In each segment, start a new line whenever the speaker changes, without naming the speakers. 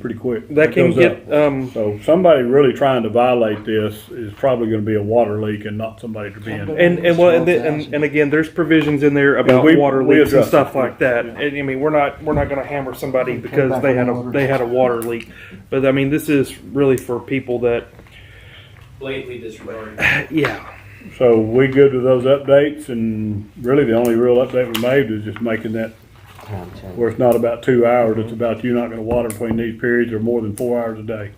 pretty quick.
That can
goes up.
get, um,
So somebody really trying to violate this is probably gonna be a water leak and not somebody to be in.
and, and well, and, the- and, and again, there's provisions in there about
we-
water
we
leaks and
addressed
stuff
it.
like that. And I mean, we're not, we're not gonna hammer somebody because they had a, they had a water leak. But I mean, this is really for people that,
blatantly disregarding.
yeah,
So we good with those updates and really the only real update we made is just making that where it's not about two hours, it's about you not gonna water between these periods or more than four hours a day.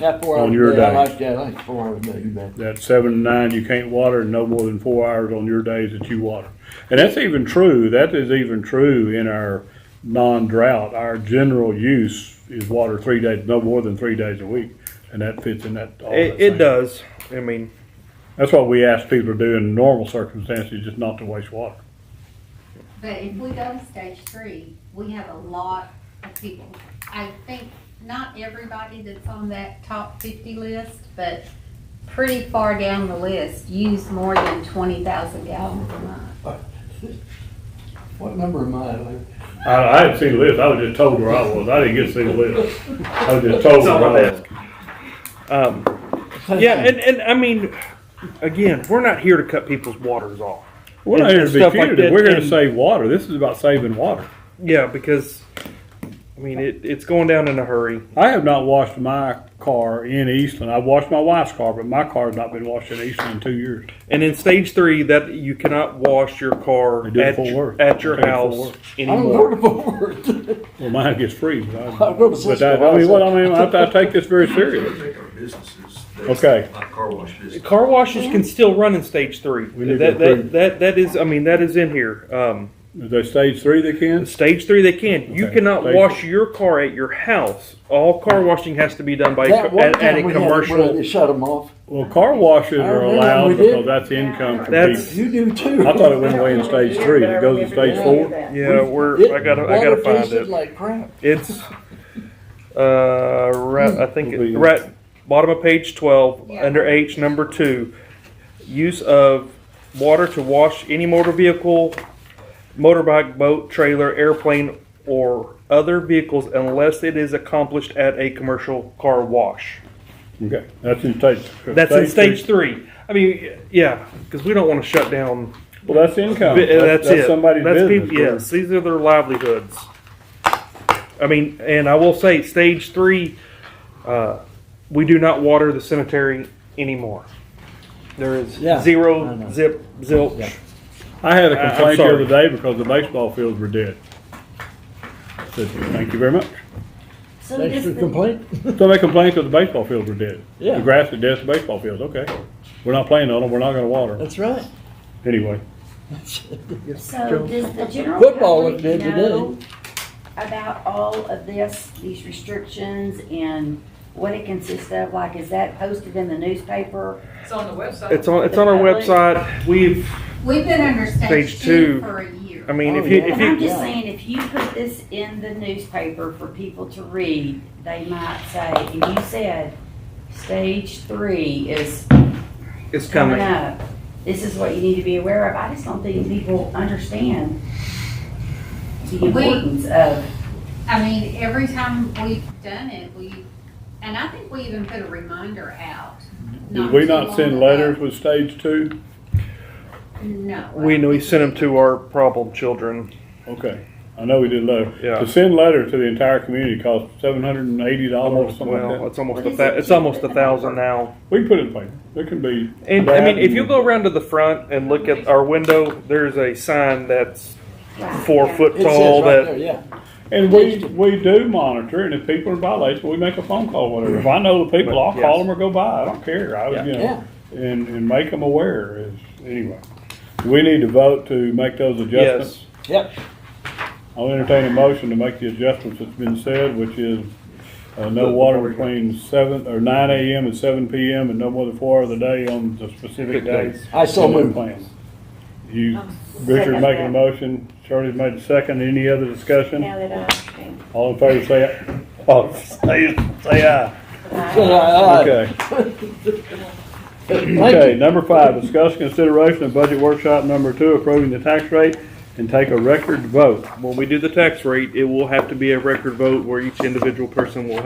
Not four
On
hours
your
a day, I
day.
like that, I like four hours a day, you bet.
That seven to nine, you can't water and no more than four hours on your days that you water. And that's even true, that is even true in our non-drought. Our general use is water three days, no more than three days a week. And that fits in that. all that
it, it
same.
does. I mean,
That's what we ask people to do in normal circumstances, just not to waste water.
But if we go to stage three, we have a lot of people. I think not everybody that's on that top fifty list, but pretty far down the list use more than twenty thousand gallons a month.
What number am I, like?
I, I didn't see the list. I was just told where I was. I didn't get to see the list. I was just told where I was.
um, yeah, and, and I mean, again, we're not here to cut people's waters off.
We're not
And-
here
and
to be
stuff like
punitive.
that,
We're here
and-
to save water. This is about saving water.
Yeah, because, I mean, it, it's going down in a hurry.
I have not washed my car in Eastland. I've washed my wife's car, but my car has not been washed in Eastland in two years.
And in stage three, that you cannot wash your car
They do it
at,
Fort Worth.
at your
They do it Fort
house
Worth.
I don't go
anymore.
to Fort Worth.
Well, mine gets free, but I,
I drove a
but I, I mean, well, I mean, I, I take this very serious.
Take our businesses.
Okay.
Like car wash business.
Car washes can still run in stage three.
We need to
That, that,
improve.
that, that is, I mean, that is in here. Um,
Is there stage three they can?
stage three, they can. You
Okay,
cannot
stage
wash your car at your house. All car washing has to be done by, a
That
co-
one
at, at a
time we had, it,
commercial.
where they shut them off.
Well, car washes
I
are
remember we
allowed
did.
because that's income from
That's-
people.
You do too.
I thought it went away in stage three. It goes in stage four.
Yeah, we're, I gotta, I gotta
Water
find
tasted
it.
Like crap.
It's, uh, right, I think, it-
Please.
right, bottom of page twelve,
Yeah.
under H, number two. Use of water to wash any motor vehicle, motorbike, boat, trailer, airplane, or other vehicles unless it is accomplished at a commercial car wash.
Okay, that's in stage.
That's in
three.
stage three. I mean, yeah, because we don't want to shut down.
Well, that's income.
Th-
Oh, That's, that's
it.
somebody's
uh, That's
business.
peop- yes, these are their livelihoods. I mean, and I will say, stage three, uh, we do not water the cemetery anymore. There is
Yeah, I
zero
know.
zip zilch.
Yeah.
I had a
I- I'm
complaint the
sorry.
other day because the baseball fields were dead. I Said, thank you very much.
So
Thanks
does
for
the-
complaining.
So they complained because the baseball fields were dead.
Yeah.
The grass is dead, the baseball fields, okay. We're not playing on them, we're not gonna water them.
That's right.
Anyway,
So does the general
Football looked good
public
today.
know about all of this, these restrictions and what it consists of? Like, is that posted in the newspaper?
It's on the website.
It's on. It's on our website. We've.
We've been under stage
Stage
two
two. Um,
for a year.
I mean,
Oh,
if you
yeah.
if
And I'm
you
just
Yeah.
saying, if you put this in the newspaper for people to read, they might say, and you said, stage three is
it's coming.
coming up. This is what you need to be aware of. I just don't think people understand the
We-
importance of
I mean, every time we've done it, we, and I think we even put a reminder out.
Mm-hmm.
did we
too
not
long
send
ago.
letters with stage two?
No.
We we sent them to our problem children.
Okay, I know we did letter.
Yeah.
To send letter to the entire community costs seven hundred and eighty dollars,
Almost,
something like
well,
that.
it's almost
What
a
is
thou-
it?
it's almost a thousand now.
We can put it in paper, it can be.
And I
that
mean, if
and-
you go around to the front and look at our window, there's a sign that's four
Yeah.
foot
It says
tall
right
that
there, Yeah.
And we, we do monitor, and if people are in violation, we make a phone call, whatever. If I know the people, I'll call them or go by, I don't care, I, you
Yeah.
know, and, and make them aware, is, anyway. Do we need to vote to make those adjustments?
yes,
Yep.
I'll entertain a motion to make the adjustments that's been said, which is, uh, no water between seven, or nine AM and seven PM, and no more than four hours a day on the specific
Specific
days.
days.
I so
in the
moved.
plan. You,
Um, second
Richard making a
that.
motion, Shirley's made a second, any other discussion?
Now that I understand.
All in favor, say aye.
Oh,
All say, say aye. Okay. Okay,
uh, Thank you.
number five, discuss consideration of budget workshop number two, approving the tax rate and take a record vote.
when we do the tax rate, it will have to be a record vote where each individual person will have